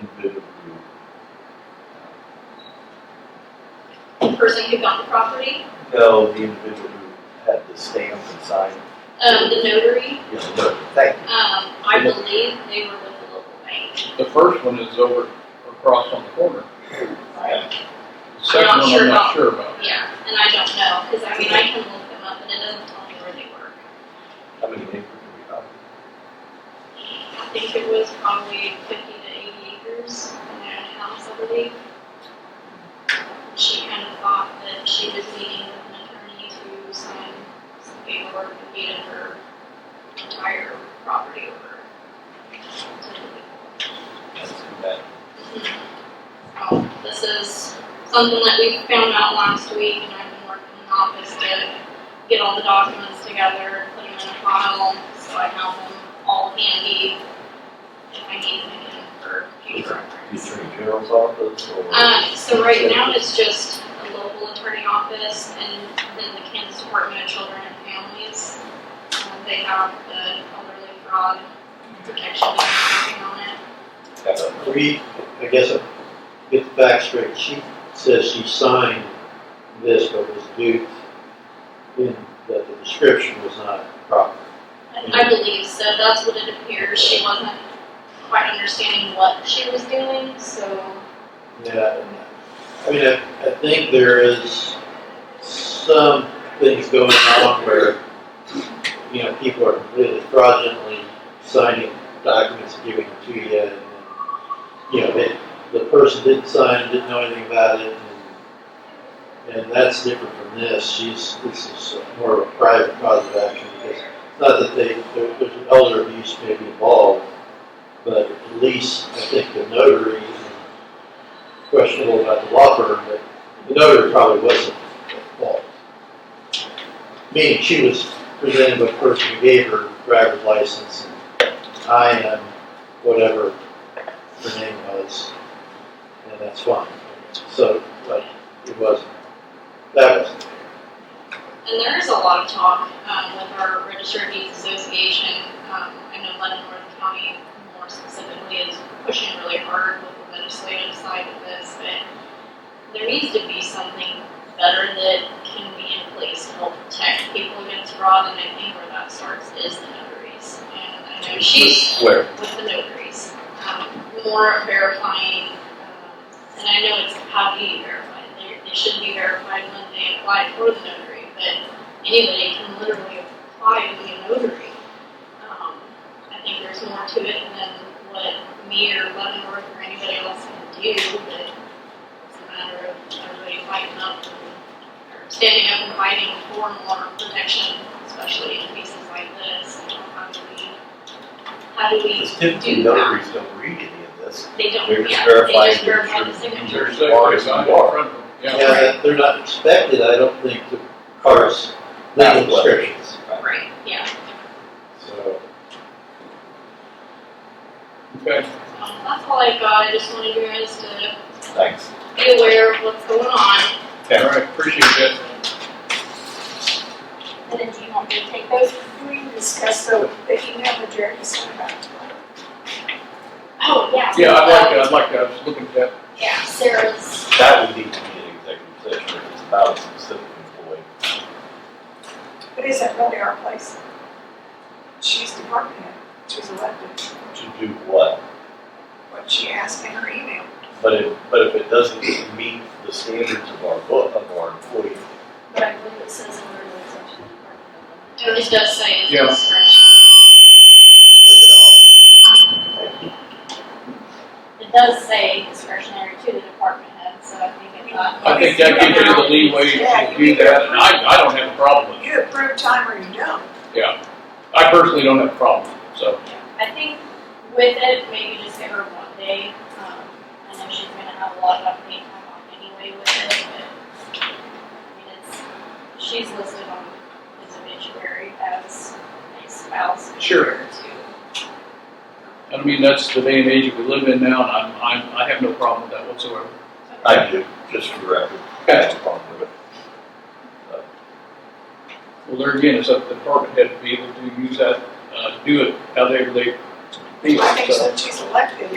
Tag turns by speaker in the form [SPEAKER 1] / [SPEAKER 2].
[SPEAKER 1] individual
[SPEAKER 2] the person who got the property,
[SPEAKER 1] who, no, uh, the individual who had the stamp and signed,
[SPEAKER 2] um, the notary,
[SPEAKER 1] you know, no, thank you.
[SPEAKER 2] um, I believe they were with the local bank.
[SPEAKER 3] The first one is over across on the corner.
[SPEAKER 2] Right.
[SPEAKER 3] The second
[SPEAKER 2] I'm not
[SPEAKER 3] one,
[SPEAKER 2] sure about.
[SPEAKER 3] I'm not sure about.
[SPEAKER 2] Yeah, and I don't know, because I mean, I can look them up, and it doesn't tell me where they were.
[SPEAKER 1] How many acres do we have?
[SPEAKER 2] I think it was probably fifty to eighty acres in their house, I believe. She kind of thought that she was meeting with an attorney to sign some paperwork and get her entire property over. to the people.
[SPEAKER 1] That's too bad.
[SPEAKER 2] Um, This is something that we found out last week, and I've been working in the office to get all the documents together, put them in a file, so I have them all handy if I need them again for future
[SPEAKER 1] The
[SPEAKER 2] reference.
[SPEAKER 1] Attorney General's office or?
[SPEAKER 2] Um, so right now, it's just the local attorney office and then the Kansas Department of Children and Families. Um, They have the elderly fraud protection and everything on it.
[SPEAKER 4] Read, I guess, I'll get the facts straight. She says she signed this, but was duped in that the description was not proper.
[SPEAKER 2] I believe so. That's what it appears. She wasn't quite understanding what she was doing, so
[SPEAKER 4] Yeah, and I mean, I, I think there is some things going on where, you know, people are completely fraudulently signing documents, giving them to you, and, you know, they, the person didn't sign, didn't know anything about it, and, and that's different from this, she's, this is more of a private cause of action, because it's not that they, there- there's an elder abuse may be involved, but at least, I think the notary and questionable about the law firm, but the notary probably wasn't at fault. Meaning she was presented with a person who gave her driver's license and I am whatever her name was, and that's fine. So, but it wasn't, that wasn't.
[SPEAKER 2] And there is a lot of talk um, with our Registered Deeds Association. Um, I know London North County, more specifically, is pushing really hard with the legislative side of this, but there needs to be something better that can be in place to help protect people against fraud. And I think where that starts is the notaries. And I know she's
[SPEAKER 1] Where?
[SPEAKER 2] with the notaries, um, more verifying. Um, and I know it's how do you verify? They, they should be verified when they apply for the notary, but anybody can literally apply to be a notary. Um, I think there's more to it than what me or Leavenworth or anybody else can do, but it's a matter of everybody fighting up and or standing up and fighting for more protection, especially in cases like this. You know, How do we, how do we
[SPEAKER 1] Because typically
[SPEAKER 2] do that?
[SPEAKER 1] notaries don't read any of this.
[SPEAKER 2] They don't,
[SPEAKER 1] They're just
[SPEAKER 2] yeah, they
[SPEAKER 1] verifying
[SPEAKER 2] just
[SPEAKER 1] their
[SPEAKER 2] verify the
[SPEAKER 1] true-
[SPEAKER 2] signature.
[SPEAKER 3] There's that right side in
[SPEAKER 1] Water.
[SPEAKER 3] front of them. Yeah.
[SPEAKER 4] Yeah, they're not expected, I don't think, to parse legal descriptions,
[SPEAKER 2] Right, yeah.
[SPEAKER 4] so.
[SPEAKER 3] Okay.
[SPEAKER 2] Um, that's all I've got. I just wanted you guys to
[SPEAKER 1] Thanks.
[SPEAKER 2] be aware of what's going on.
[SPEAKER 3] All right. Appreciate that.
[SPEAKER 5] And then do you want me to take those three and discuss the, the email that Jeremy sent about?
[SPEAKER 2] Oh, yeah.
[SPEAKER 3] Yeah, I'd like to, I'd like to, I was looking at that.
[SPEAKER 2] Yeah, Sarah's
[SPEAKER 1] That would need to be an executive session if it's about a specific employee.
[SPEAKER 5] But is that really our place? She's department head, she's elected,
[SPEAKER 1] To do what?
[SPEAKER 5] what she asked in her email.
[SPEAKER 1] But if, but if it doesn't meet the standards of our book, of our employee,
[SPEAKER 6] But I believe it says in the regular section of the department.
[SPEAKER 2] Oh, it does say it's
[SPEAKER 3] Yeah.
[SPEAKER 2] discretion.
[SPEAKER 1] look it all.
[SPEAKER 6] It does say discretionary to the department head, so I think it's not.
[SPEAKER 3] I think that gives you the leeway to do that, and I, I don't have a problem with it.
[SPEAKER 5] You approve time or you don't.
[SPEAKER 3] I personally don't have a problem with it, so.
[SPEAKER 6] I think with it, maybe just give her one day. Um, I know she's gonna have a lot of unpaid time off anyway with it, but I mean, it's, she's listed on his obituary as a spouse.
[SPEAKER 3] Sure.
[SPEAKER 6] compared to-
[SPEAKER 3] I mean, that's the day and age that we live in now, and I'm, I'm, I have no problem with that whatsoever.
[SPEAKER 1] I do, just for the record. I have a problem with it.
[SPEAKER 3] Well, there again, it's up to the department head to be able to use that, uh, do it however they feel.
[SPEAKER 5] I think
[SPEAKER 3] so.
[SPEAKER 5] since she's elected,